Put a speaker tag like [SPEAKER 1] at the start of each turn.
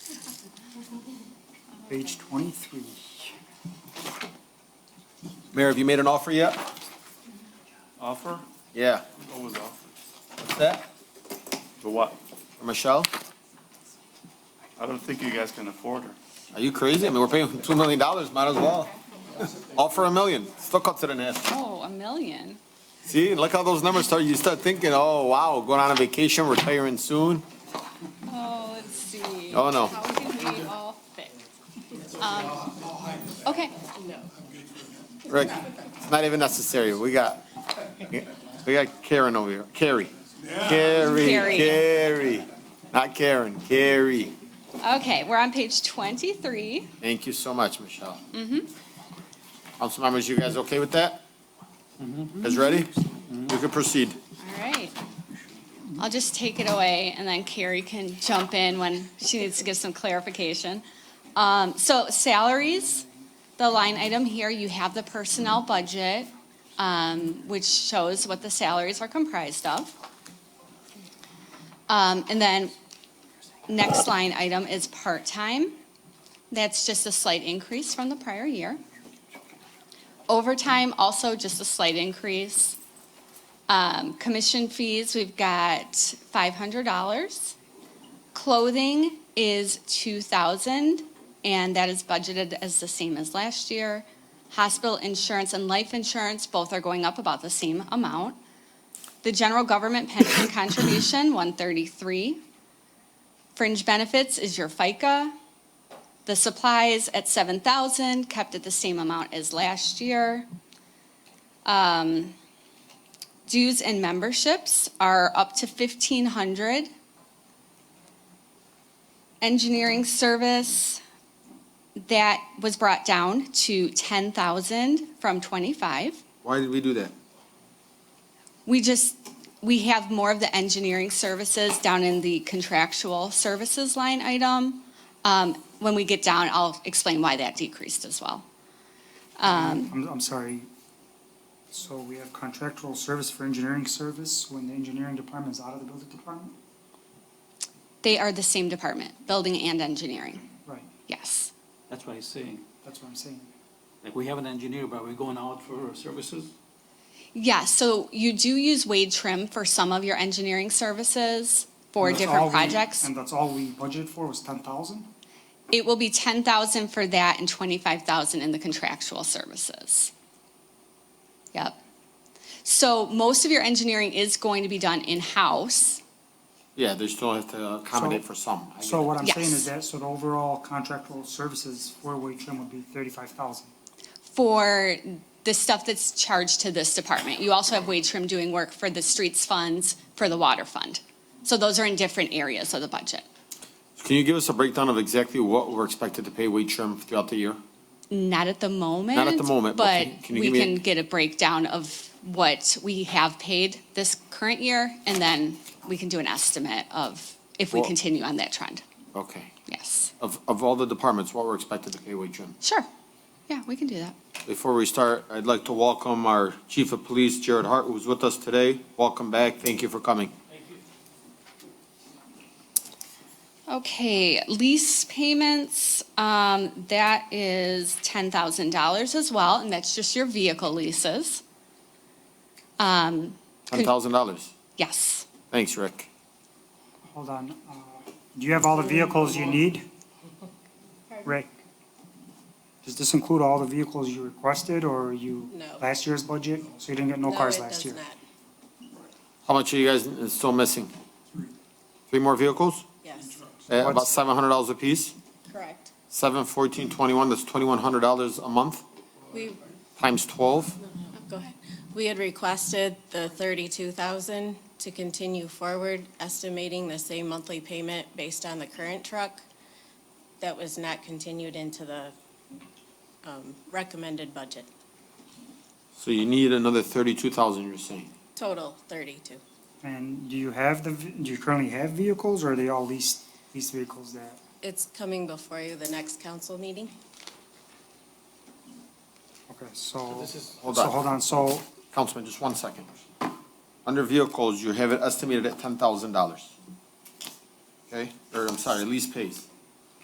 [SPEAKER 1] page twenty-three.
[SPEAKER 2] Mayor, have you made an offer yet?
[SPEAKER 3] Offer?
[SPEAKER 2] Yeah.
[SPEAKER 3] What was offer?
[SPEAKER 2] What's that?
[SPEAKER 3] For what?
[SPEAKER 2] For Michelle?
[SPEAKER 3] I don't think you guys can afford her.
[SPEAKER 2] Are you crazy? I mean, we're paying two million dollars, might as well. Offer a million, still cuts it in half.
[SPEAKER 4] Oh, a million?
[SPEAKER 2] See, look how those numbers start, you start thinking, oh, wow, going on a vacation, retiring soon.
[SPEAKER 4] Oh, let's see.
[SPEAKER 2] Oh, no.
[SPEAKER 4] How can we all fit? Um, Okay,
[SPEAKER 2] Rick, it's not even necessary, we got, we got Karen over here, Carrie. Carrie,
[SPEAKER 4] Carrie.
[SPEAKER 2] Carrie, not Karen, Carrie.
[SPEAKER 4] okay, we're on page twenty-three.
[SPEAKER 2] Thank you so much, Michelle. Mm-hmm. Council members, you guys okay with that? Guys ready? You can proceed.
[SPEAKER 4] All right. I'll just take it away, and then Carrie can jump in when she needs to give some clarification. Um, So salaries, the line item here, you have the personnel budget, um, which shows what the salaries are comprised of. Um, And then, next line item is part-time. That's just a slight increase from the prior year. Overtime, also just a slight increase. Um, commission fees, we've got five hundred dollars. Clothing is two thousand, and that is budgeted as the same as last year. Hospital insurance and life insurance, both are going up about the same amount. The general government pension contribution, one thirty-three. Fringe benefits is your FICA. The supplies at seven thousand, kept at the same amount as last year. Dues and memberships are up to fifteen hundred. Engineering service, that was brought down to ten thousand from twenty-five.
[SPEAKER 2] Why did we do that?
[SPEAKER 4] We just, we have more of the engineering services down in the contractual services line item. Um, when we get down, I'll explain why that decreased as well. Um.
[SPEAKER 1] I'm, I'm sorry. So we have contractual service for engineering service when the engineering department is out of the building department?
[SPEAKER 4] They are the same department, building and engineering,
[SPEAKER 1] Right,
[SPEAKER 4] yes.
[SPEAKER 5] That's what he's saying.
[SPEAKER 1] that's what I'm saying.
[SPEAKER 5] Like, we have an engineer, but we're going out for services?
[SPEAKER 4] Yeah, so you do use Wade Trim for some of your engineering services for
[SPEAKER 1] And that's all
[SPEAKER 4] different
[SPEAKER 1] we-
[SPEAKER 4] projects.
[SPEAKER 1] And that's all we budgeted for was ten thousand?
[SPEAKER 4] It will be ten thousand for that and twenty-five thousand in the contractual services. Yep. So most of your engineering is going to be done in-house.
[SPEAKER 2] Yeah, they still have to accommodate
[SPEAKER 1] So-
[SPEAKER 2] for some. I
[SPEAKER 1] So
[SPEAKER 2] get it.
[SPEAKER 1] what I'm saying is
[SPEAKER 4] Yes.
[SPEAKER 1] that, so the overall contractual services for Wade Trim would be thirty-five thousand.
[SPEAKER 4] for the stuff that's charged to this department. You also have Wade Trim doing work for the streets funds, for the water fund. So those are in different areas of the budget.
[SPEAKER 2] Can you give us a breakdown of exactly what we're expected to pay wage trim throughout the year?
[SPEAKER 4] Not at the moment.
[SPEAKER 2] moment, but
[SPEAKER 4] But
[SPEAKER 2] can- can you
[SPEAKER 4] we
[SPEAKER 2] give me a-
[SPEAKER 4] can get a breakdown of what we have paid this current year, and then we can do an estimate of if we
[SPEAKER 2] Well-
[SPEAKER 4] continue on that trend.
[SPEAKER 2] Okay.
[SPEAKER 4] Yes,
[SPEAKER 2] Of, of all the departments, what we're expected to pay wage trim?
[SPEAKER 4] sure. Yeah, we can do that.
[SPEAKER 2] Before we start, I'd like to welcome our Chief of Police, Jared Hart, who's with us today. Welcome back. Thank you for coming.
[SPEAKER 4] Okay, lease payments, um, that is ten thousand dollars as well, and that's just your vehicle leases.
[SPEAKER 2] Ten thousand dollars.
[SPEAKER 4] Yes,
[SPEAKER 2] Thanks, Rick.
[SPEAKER 1] Hold on, uh, do you have all the vehicles you need? Rick? Does this include all the vehicles you requested or you?
[SPEAKER 6] No.
[SPEAKER 1] Last year's budget, so you didn't get no cars
[SPEAKER 6] it
[SPEAKER 1] last
[SPEAKER 6] does
[SPEAKER 1] year?
[SPEAKER 6] not.
[SPEAKER 2] How much are you guys still missing? Three more vehicles?
[SPEAKER 6] Yes,
[SPEAKER 2] At about
[SPEAKER 1] What's-
[SPEAKER 2] seven hundred dollars apiece?
[SPEAKER 6] correct.
[SPEAKER 2] Seven, fourteen, twenty-one, that's twenty-one hundred dollars a month,
[SPEAKER 6] We,
[SPEAKER 2] times twelve?
[SPEAKER 6] go ahead. We had requested the thirty-two thousand to continue forward, estimating the same monthly payment based on the current truck. That was not continued into the, um, recommended budget.
[SPEAKER 2] So you need another thirty-two thousand, you're saying?
[SPEAKER 6] Total thirty-two.
[SPEAKER 1] And do you have the, v- do you currently have vehicles or are they all leased, leased vehicles that?
[SPEAKER 6] It's coming before you the next council meeting.
[SPEAKER 1] Okay, so,
[SPEAKER 2] Hold
[SPEAKER 1] so
[SPEAKER 2] on,
[SPEAKER 1] hold on, so
[SPEAKER 2] Councilman, just one second. Under vehicles, you have it estimated at ten thousand dollars. Okay, or I'm sorry, lease pays.